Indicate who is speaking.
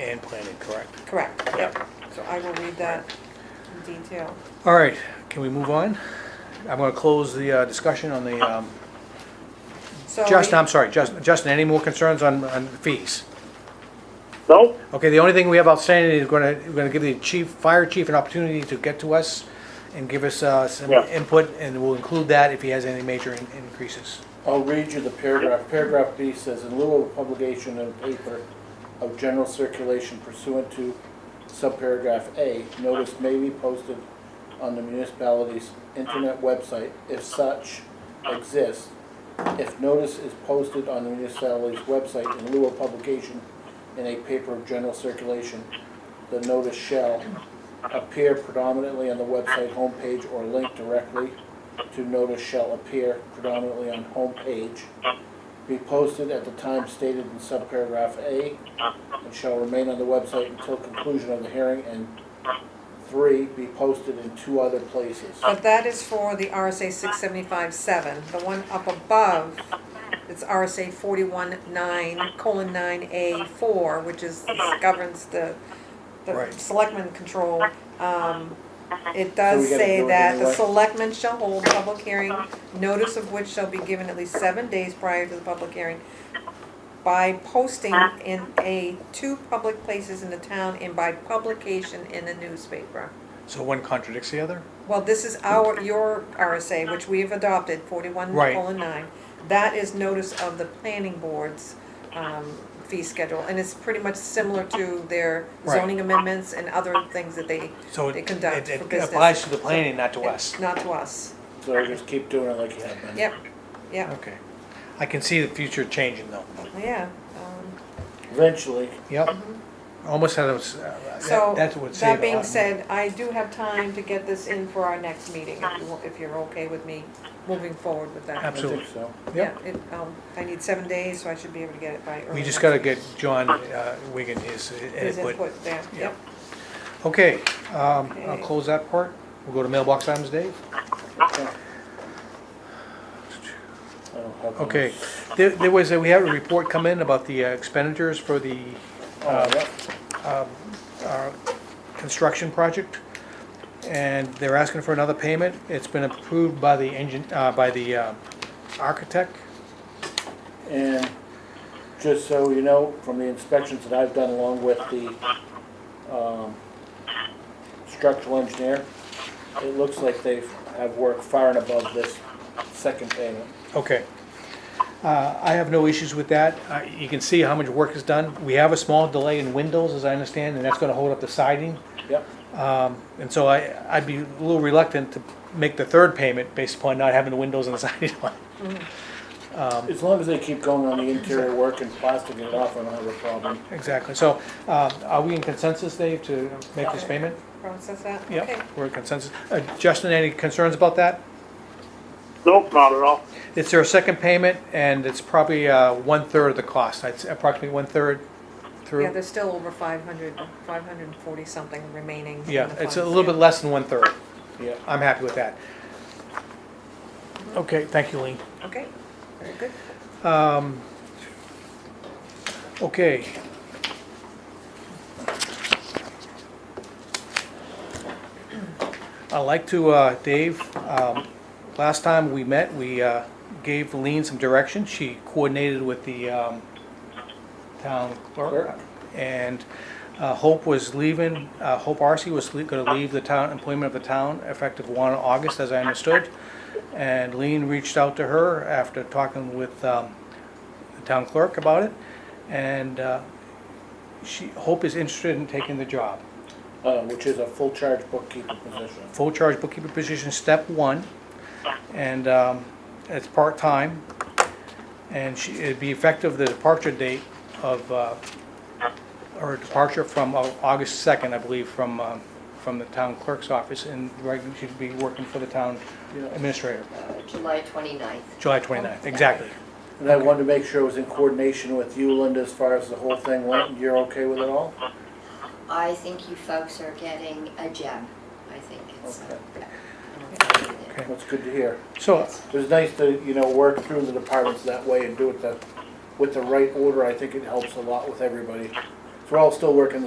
Speaker 1: and planning, correct?
Speaker 2: Correct.
Speaker 1: Yep.
Speaker 2: So I will read that in detail.
Speaker 1: All right, can we move on? I'm gonna close the uh, discussion on the, um,
Speaker 2: So
Speaker 1: Justin,
Speaker 2: we-
Speaker 1: I'm sorry, Justin, Justin, any more concerns on, on fees?
Speaker 3: Nope,
Speaker 1: Okay, the only thing we have outstanding is gonna, we're gonna give the chief, fire chief an opportunity to get to us and give us, uh, some
Speaker 3: Yeah.
Speaker 1: input, and we'll include that if he has any major in- increases.
Speaker 4: I'll read you the paragraph. Paragraph B says, in lieu of publication in paper of general circulation pursuant to subparagraph A, notice may be posted on the municipality's internet website if such exists. If notice is posted on the municipality's website in lieu of publication in a paper of general circulation, the notice shall appear predominantly on the website homepage or link directly to notice shall appear predominantly on homepage, be posted at the time stated in subparagraph A, and shall remain on the website until conclusion of the hearing, and three, be posted in two other places.
Speaker 2: But that is for the RSA six seventy-five seven, the one up above, it's RSA forty-one nine, colon nine A four, which is, governs the, the
Speaker 1: Right.
Speaker 2: selectmen control. Um, it
Speaker 4: So
Speaker 2: does
Speaker 4: we gotta
Speaker 2: say
Speaker 4: do it
Speaker 2: that the
Speaker 4: anyway?
Speaker 2: selectmen shall hold public hearing, notice of which shall be given at least seven days prior to the public hearing by posting in a, two public places in the town and by publication in a newspaper.
Speaker 1: So one contradicts the other?
Speaker 2: Well, this is our, your RSA, which we have adopted, forty-one
Speaker 1: Right.
Speaker 2: colon nine. That is notice of the planning board's, um, fee schedule, and it's pretty much similar to their
Speaker 1: Right.
Speaker 2: zoning amendments and other things that they,
Speaker 1: So
Speaker 2: they
Speaker 1: it,
Speaker 2: conduct
Speaker 1: it
Speaker 2: for
Speaker 1: it
Speaker 2: business.
Speaker 1: applies to the planning, not to us?
Speaker 2: Not to us,
Speaker 4: So just keep doing it like you have been.
Speaker 2: yep, yep,
Speaker 1: Okay. I can see the future changing though.
Speaker 2: yeah, um.
Speaker 4: Eventually,
Speaker 1: Yep. Almost had a, s- uh,
Speaker 2: So,
Speaker 1: that- that's what saved
Speaker 2: that
Speaker 1: a lot
Speaker 2: being
Speaker 1: of
Speaker 2: said, I do have time to get this in for our next meeting, if you, wa- if you're okay with me moving forward with that.
Speaker 4: I think
Speaker 1: Absolutely.
Speaker 4: so.
Speaker 1: money.
Speaker 2: Yeah,
Speaker 1: Yep.
Speaker 2: it, um, I need seven days, so I should be able to get it by early.
Speaker 1: We just
Speaker 2: next-
Speaker 1: gotta get John uh, Wigan his
Speaker 2: His
Speaker 1: input.
Speaker 2: input there,
Speaker 1: Yeah.
Speaker 2: yep.
Speaker 1: Okay, um, I'll
Speaker 2: Okay.
Speaker 1: close that part. We'll go to mailbox items, Dave.
Speaker 4: Okay. I don't have one.
Speaker 1: Okay, there, there was, a- we had a report come in about the uh, expenditures for the
Speaker 4: Oh, yeah.
Speaker 1: uh, construction project. And they're asking for another payment. It's been approved by the engine, uh, by the uh, architect.
Speaker 4: And just so you know, from the inspections that I've done along with the um, structural engineer, it looks like they have worked far and above this second payment.
Speaker 1: Okay. Uh, I have no issues with that. Uh, You can see how much work is done. We have a small delay in windows, as I understand, and that's gonna hold up the siding.
Speaker 4: Yep,
Speaker 1: And so I, I'd be a little reluctant to make the third payment based upon not having the windows and the siding on.
Speaker 4: as long as they keep going on the interior work and plastering it off, I don't have a problem.
Speaker 1: Exactly. So, uh, are we in consensus, Dave, to make this payment?
Speaker 2: Process that, okay.
Speaker 1: Yep, we're in consensus. Uh, Justin, any concerns about that?
Speaker 3: nope, not at all.
Speaker 1: It's their second payment, and it's probably uh, one-third of the cost. It's approximately one-third through.
Speaker 2: Yeah, there's still over 500, 540 something remaining. in
Speaker 1: Yeah,
Speaker 2: the
Speaker 1: it's a
Speaker 2: funds,
Speaker 1: little bit
Speaker 2: yeah.
Speaker 1: less than one-third.
Speaker 4: Yeah,
Speaker 1: I'm happy with that. Okay, thank you, Lean.
Speaker 2: Okay, very good.
Speaker 1: Okay. I'd like to, uh, Dave, um, last time we met, we uh, gave Lean some direction. She coordinated with the um, town clerk.
Speaker 4: Clerk.
Speaker 1: And uh, Hope was leaving, uh, Hope Arcee was going to leave the town, employment of the town effective 1 August, as I understood. And Lean reached out to her after talking with um, the town clerk about it. And uh, she, Hope is interested in taking the job.
Speaker 4: uh, which is a full charge bookkeeper position.
Speaker 1: Full charge bookkeeper position, step one. And um, it's part-time. And she, it'd be effective the departure date of, uh, or departure from uh, August 2nd, I believe, from, um, from the town clerk's office. And right, she'd be working for the town administrator,
Speaker 5: July 29th.
Speaker 1: July 29th, exactly.
Speaker 4: And I wanted to make sure it was in coordination with you, Linda, as far as the whole thing went. You're okay with it all?
Speaker 5: I think you folks are getting a gem. I think it's, uh,
Speaker 4: Okay.
Speaker 5: I'll tell you there.
Speaker 1: Okay.
Speaker 4: That's good to hear.
Speaker 1: So
Speaker 4: It was nice to, you know, work through the departments that way and do it the, with the right order, I think it helps a lot with everybody. So we're all still working the